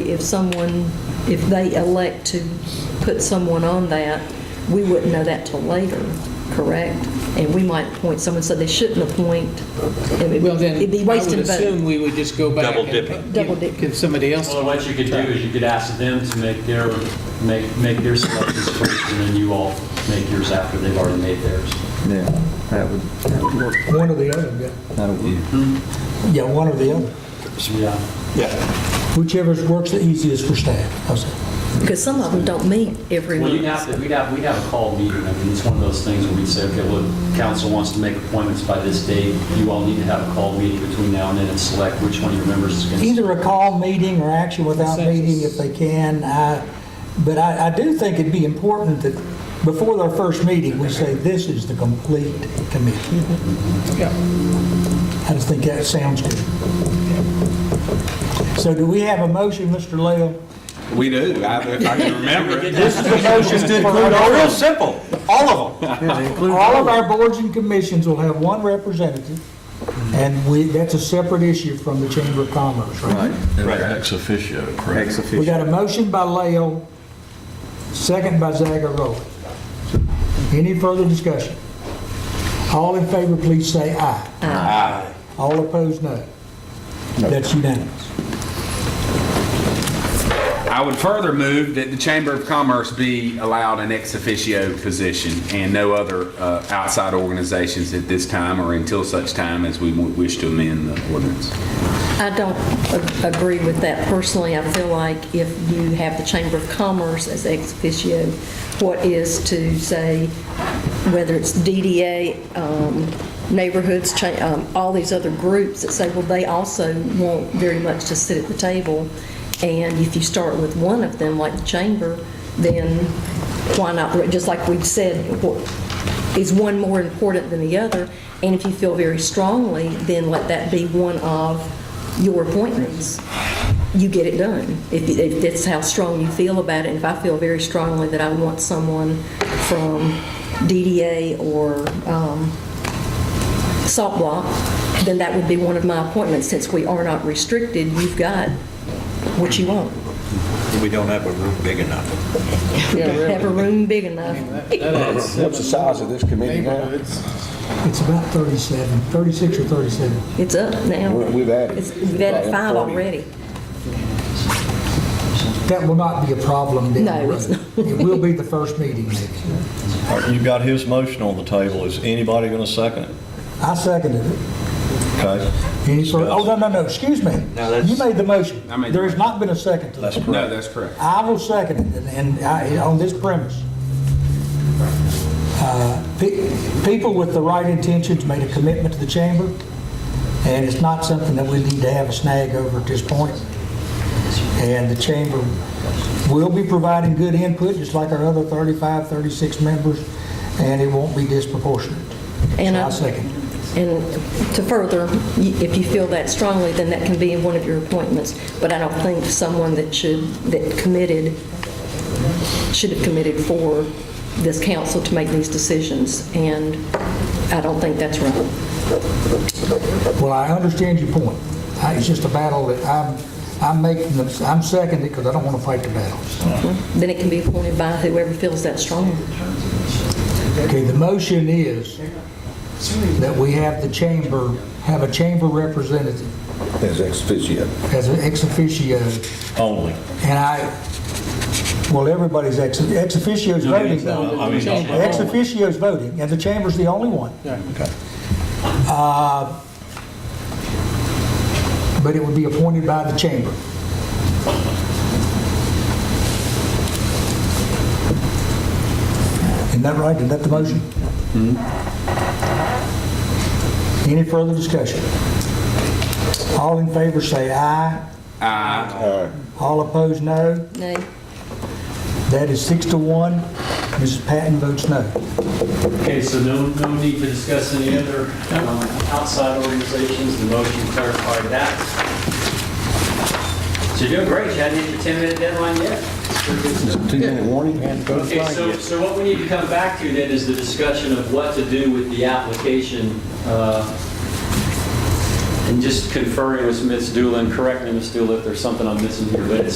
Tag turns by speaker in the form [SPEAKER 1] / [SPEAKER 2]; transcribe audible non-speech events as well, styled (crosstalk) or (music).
[SPEAKER 1] If someone, if they elect to put someone on that, we wouldn't know that till later, correct? And we might appoint someone, so they shouldn't appoint. It would be-
[SPEAKER 2] Well, then,
[SPEAKER 1] It'd be
[SPEAKER 2] I would
[SPEAKER 1] wasting vote.
[SPEAKER 2] assume we would just go back.
[SPEAKER 3] Double
[SPEAKER 2] and
[SPEAKER 3] dipping.
[SPEAKER 2] give-
[SPEAKER 1] Double dipping.
[SPEAKER 2] Give somebody else.
[SPEAKER 4] Well, what you could do is you could ask them to make their, make, make their selections first, and then you all make yours after they've already made theirs.
[SPEAKER 5] Yeah, that would, that would work.
[SPEAKER 6] One or the other,
[SPEAKER 5] That would be-
[SPEAKER 6] yeah. Yeah, one or the other.
[SPEAKER 4] Yeah.
[SPEAKER 6] Whichever works the easiest for staff. How's that?
[SPEAKER 1] Because some of them don't meet every
[SPEAKER 4] Well, you'd
[SPEAKER 1] month.
[SPEAKER 4] have to, we'd have, we'd have a call meeting, I mean, it's one of those things where we'd say, okay, look, council wants to make appointments by this date, you all need to have a call meeting between now and then and select which one of your members is going to.
[SPEAKER 6] Either a call meeting or action without meeting if they can. I- But I, I do think it'd be important that before their first meeting, we say, this is the complete committee.
[SPEAKER 2] Yeah.
[SPEAKER 6] I just think that sounds good. So do we have a motion, Mr. Lale?
[SPEAKER 3] We do, I- if I can (laughs) remember it.
[SPEAKER 6] Motion to
[SPEAKER 3] Real simple, all of them.
[SPEAKER 6] All of our boards and commissions will have one representative, and we, that's a separate issue from the Chamber of Commerce, right?
[SPEAKER 7] Ex officio, correct?
[SPEAKER 5] Ex
[SPEAKER 6] We
[SPEAKER 5] officio.
[SPEAKER 6] got a motion by Lael, second by Zagoroli. Any further discussion? All in favor, please say aye. Aye. All opposed, no. That's unanimous.
[SPEAKER 3] I would further move that the Chamber of Commerce be allowed an ex officio position and no other uh, outside organizations at this time or until such time as we w- wish to amend the ordinance.
[SPEAKER 1] I don't a- agree with that personally. I feel like if you have the Chamber of Commerce as ex officio, what is to say, whether it's DDA, um, neighborhoods, cha- um, all these other groups that say, well, they also want very much to sit at the table. And if you start with one of them, like the Chamber, then why not, just like we said, wh- is one more important than the other? And if you feel very strongly, then let that be one of your appointments. You get it done, if if that's how strong you feel about it. If I feel very strongly that I want someone from DDA or um, Salt Block, then that would be one of my appointments. Since we are not restricted, you've got what you want.
[SPEAKER 7] We don't have a room big enough.
[SPEAKER 1] Have a room big enough.
[SPEAKER 2] What's the size of this committee
[SPEAKER 6] It's about 37, 36 or 37.
[SPEAKER 1] It's up now.
[SPEAKER 7] We've added.
[SPEAKER 1] It's- We've added five already.
[SPEAKER 6] That will not be a problem down the
[SPEAKER 1] No,
[SPEAKER 6] road.
[SPEAKER 1] it's
[SPEAKER 6] It will be the first meeting next year.
[SPEAKER 7] You've got his motion on the table. Is anybody going to second it?
[SPEAKER 6] I seconded it.
[SPEAKER 7] Okay?
[SPEAKER 6] Any further, oh, no, no, no, excuse me. You made the motion.
[SPEAKER 3] I made the
[SPEAKER 6] There has
[SPEAKER 3] motion.
[SPEAKER 6] not been a second to that.
[SPEAKER 7] That's
[SPEAKER 3] No,
[SPEAKER 7] correct.
[SPEAKER 3] that's correct.
[SPEAKER 6] I will second it, and- and I- on this premise. Uh, pe- People with the right intentions made a commitment to the chamber, and it's not something that we need to have a snag over at this point. And the chamber will be providing good input, just like our other 35, 36 members, and it won't be disproportionate.
[SPEAKER 1] And
[SPEAKER 6] So
[SPEAKER 1] I-
[SPEAKER 6] I second.
[SPEAKER 1] And to further, y- if you feel that strongly, then that can be one of your appointments. But I don't think someone that should, that committed, should have committed for this council to make these decisions. And I don't think that's right.
[SPEAKER 6] Well, I understand your point. I- It's just a battle that I'm, I'm making, the- I'm seconding because I don't want to fight the battle.
[SPEAKER 1] Then it can be appointed by whoever feels that strongly.
[SPEAKER 6] Okay, the motion is that we have the chamber, have a chamber representative
[SPEAKER 8] As ex officio.
[SPEAKER 6] as an ex officio,
[SPEAKER 7] Only.
[SPEAKER 6] and I, well, everybody's ex, ex officio's voting though.
[SPEAKER 7] I mean,
[SPEAKER 6] Ex officio's voting, and the chamber's the only one. Uh, But it would be appointed by the chamber. Isn't that right? Isn't that the motion? Any further discussion? All in favor say aye. Aye. All opposed, no.
[SPEAKER 1] Nay?
[SPEAKER 6] That is six to one. Mrs. Patton votes no.
[SPEAKER 4] Okay, so no, no need to discuss any other um, outside organizations, the motion clarified that. So you're doing great, you hadn't hit your 10-minute deadline yet. Sure good stuff.
[SPEAKER 8] Two-minute warning?
[SPEAKER 4] Okay, so, so what we need to come back to then is the discussion of what to do with the application, uh, and just conferring with Ms. Doolin, correct me, Ms. Doolin, if there's something I'm missing here, but it's